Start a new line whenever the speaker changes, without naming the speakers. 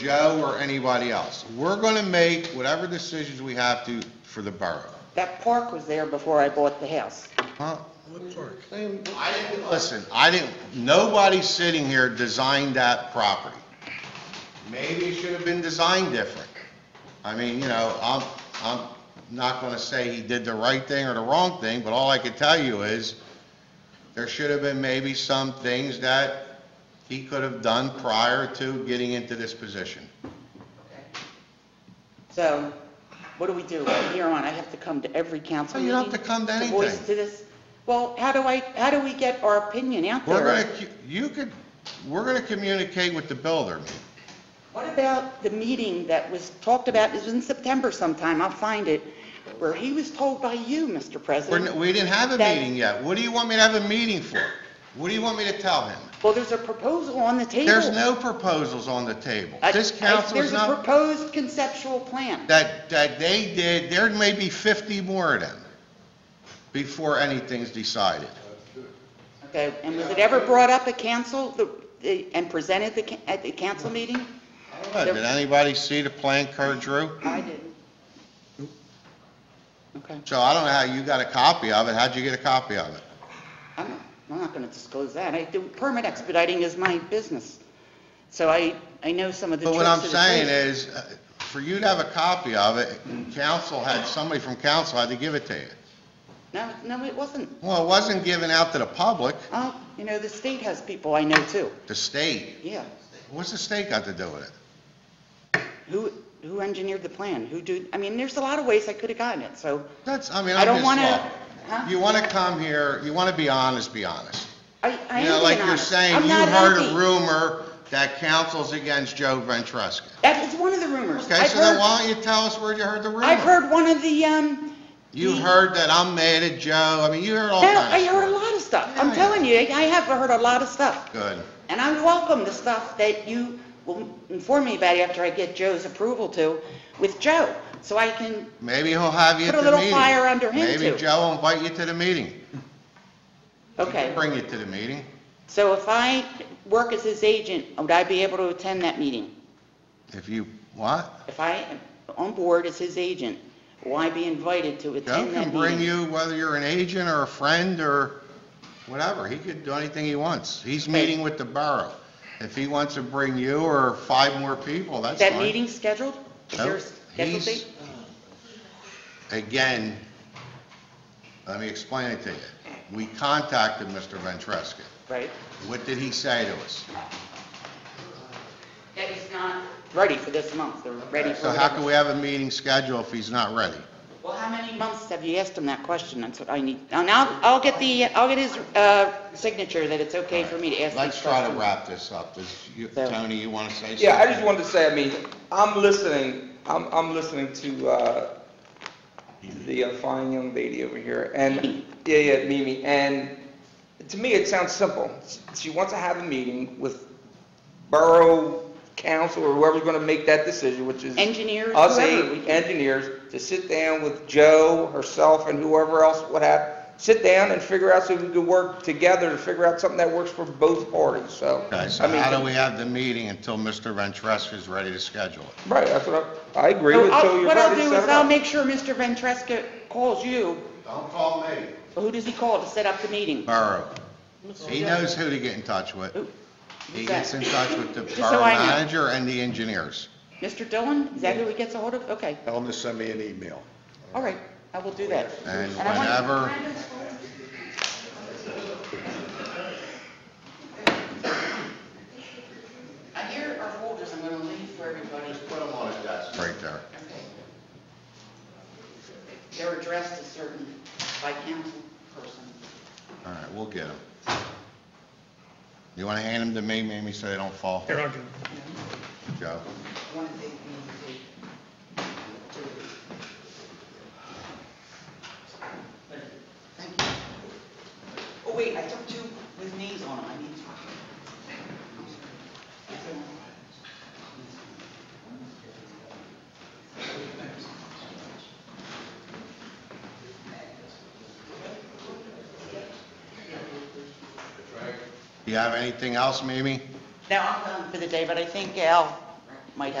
Joe or anybody else. We're gonna make whatever decisions we have to for the borough.
That park was there before I bought the house.
Huh? I didn't, listen, I didn't, nobody sitting here designed that property. Maybe it should have been designed different. I mean, you know, I'm, I'm not gonna say he did the right thing or the wrong thing, but all I could tell you is, there should have been maybe some things that he could have done prior to getting into this position.
So what do we do? From here on, I have to come to every council
No,
meeting?
you don't have to come to
voice
anything.
to this? Well, how do I, how do we get our opinion out
We're
there?
gonna, cu- you could, we're gonna communicate with the builder.
What about the meeting that was talked about, it was in September sometime, I'll find it, where he was told by you, Mr.
We're, n-
President?
we didn't have a
That-
meeting yet. What do you want me to have a meeting for? What do you want me to tell him?
Well, there's a proposal on the table.
There's no proposals on the table.
I-
This
I-
council is
There's a
not,
proposed conceptual plan.
that, that they did, there may be 50 more of them before anything's decided.
Okay, and was it ever brought up at council, the- the- and presented the ca- at the council meeting?
Did anybody see the plan Kurt drew?
I didn't. Okay,
So I don't know how you got a copy of it. How'd you get a copy of it?
I'm not, I'm not gonna disclose that. I do, permit expediting is my business. So I, I know some of the
But
tricks
what I'm
of the
saying
trade.
is, uh, for you to have a copy of it, council had, somebody from council had to give it to you.
No, no, it wasn't.
Well, it wasn't given out to the public,
Oh, you know, the state has people I know too,
the state.
yeah.
What's the state got to do with it?
Who, who engineered the plan? Who do, I mean, there's a lot of ways I could've gotten it, so
That's, I mean,
I
I'm
don't
just,
wanna.
look,
huh?
you want to come here, you want to be honest, be honest.
I, I am
You know, like
being
you're
honest.
saying,
I'm
you
not
heard a
happy.
rumor that council's against Joe Ventresca.
That is one of the rumors.
Okay,
I've
so then
heard-
why don't you tell us where you heard the rumor?
I've heard one of the, um...
You
the-
heard that I'm mad at Joe, I mean, you heard all
No,
kinds of
I heard a
stuff.
lot of stuff.
Yeah,
I'm
I
telling you, I have heard a lot of stuff.
Good.
And I welcome the stuff that you will inform me about after I get Joe's approval to with Joe, so I can,
Maybe he'll have you at
Put a
the meeting.
little fire under him,
Maybe
too.
Joe will invite you to the meeting. He can
okay.
Bring you to the meeting.
So if I work as his agent, would I be able to attend that meeting?
If you, what?
If I am on board as his agent, will I be invited to
Joe
attend
can
that
bring
meeting?
you, whether you're an agent or a friend or whatever, he could do anything he wants. He's meeting with the borough. If he wants to bring you or five more people,
Is
that's fine.
that meeting scheduled? Is
No,
there a scheduled
he's-
date?
Again, let me explain it to you. We contacted Mr. Ventresca.
Right.
What did he say to us?
That he's not ready for this month, they're ready for
So how
whatever.
can we have a meeting scheduled if he's not ready?
Well, how many months have you asked him that question? That's what I need. And I'll, I'll get the, I'll get his, uh, signature that it's okay for me to ask
Let's
these
try to
questions.
wrap this up. Does you-
So-
Tony, you want to say something?
Yeah, I just wanted to say, I mean, I'm listening, I'm, I'm listening to, uh, the uh, fine young lady over here, and, yeah, yeah, Mimi, and to me, it sounds simple. She wants to have a meeting with borough council or whoever's gonna make that decision, which is.
Engineers,
Us
whoever we
eight
can-
engineers, to sit down with Joe, herself, and whoever else would have, sit down and figure out so we can work together to figure out something that works for both parties, so.
Okay,
I
so
mean,
how do we have the meeting until Mr. Ventresca is ready to schedule it?
Right, that's what I, I agree
So
with,
I'll-
so you're
What I'll
ready to
do
set
is
it
I'll
up.
make sure Mr. Ventresca calls you.
Don't call me.
Who does he call to set up the meeting?
Borough. He knows who to get in touch with.
Who?
He
Who's
gets
that?
in touch with the
Just so
borough
I know.
manager and the engineers.
Mr. Dillon? Is that who he gets a hold of? Okay,
Tell them to send me an email.
all right, I will do that.
And
I want-
whenever,
Here are folders I'm gonna leave for everybody.
right there.
They're addressed to certain, by council person.
All right, we'll get them. You want to hand them to me, Mamie, so they don't fall? Here, I'll get them. Joe?
One thing we need to do. Thank you. Oh, wait, I took two with names on them, I need to.
Do you have anything else, Mamie?
Now, I'm done for the day, but I think Al